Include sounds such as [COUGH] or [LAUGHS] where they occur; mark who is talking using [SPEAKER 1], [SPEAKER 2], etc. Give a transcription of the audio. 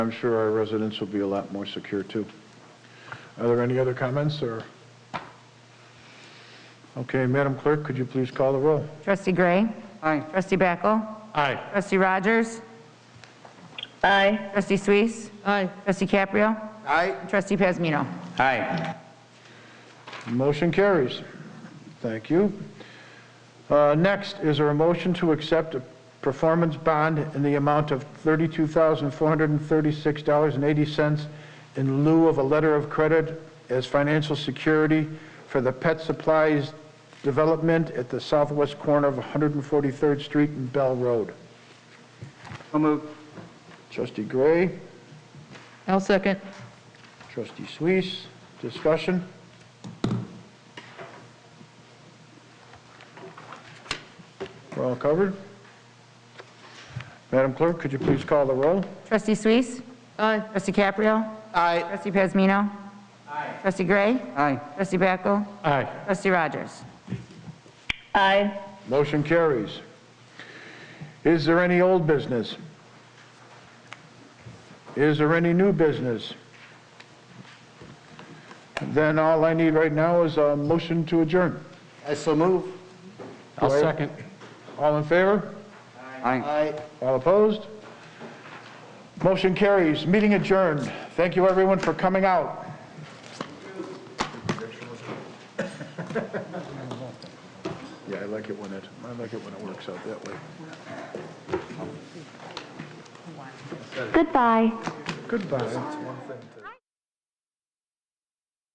[SPEAKER 1] I'm sure our residents will be a lot more secure, too. Are there any other comments, or? Okay, Madam Clerk, could you please call the roll?
[SPEAKER 2] Trustee Gray.
[SPEAKER 3] Aye.
[SPEAKER 2] Trustee Bickel.
[SPEAKER 1] Aye.
[SPEAKER 2] Trustee Rogers. Aye. Trustee Suisse. Aye. Trustee Caprio.
[SPEAKER 3] Aye.
[SPEAKER 2] Trustee Pazmino.
[SPEAKER 3] Aye.
[SPEAKER 1] Motion carries. Thank you. Uh, Next, is there a motion to accept a performance bond in the amount of $32,436.80 in lieu of a letter of credit as financial security for the pet supplies development at the southwest corner of 143rd Street and Bell Road?
[SPEAKER 3] So moved.
[SPEAKER 1] Trustee Gray,
[SPEAKER 2] I'll second.
[SPEAKER 1] trustee Suisse, discussion? We're all covered? Madam Clerk, could you please call the roll?
[SPEAKER 2] Trustee Suisse. Aye. Trustee Caprio.
[SPEAKER 3] Aye.
[SPEAKER 2] Trustee Pazmino. Aye. Trustee Gray.
[SPEAKER 3] Aye.
[SPEAKER 2] Trustee Bickel.
[SPEAKER 1] Aye.
[SPEAKER 2] Trustee Rogers.
[SPEAKER 4] Aye.
[SPEAKER 1] Motion carries. Is there any old business? Is there any new business? Then all I need right now is a motion to adjourn.
[SPEAKER 3] I so move.
[SPEAKER 1] I'll second. All in favor?
[SPEAKER 3] Aye.
[SPEAKER 1] All opposed? Motion carries, meeting adjourned. Thank you, everyone, for coming out. [LAUGHS] Yeah, I like it when it, I like it when it works out that way.
[SPEAKER 4] Goodbye.
[SPEAKER 1] Goodbye.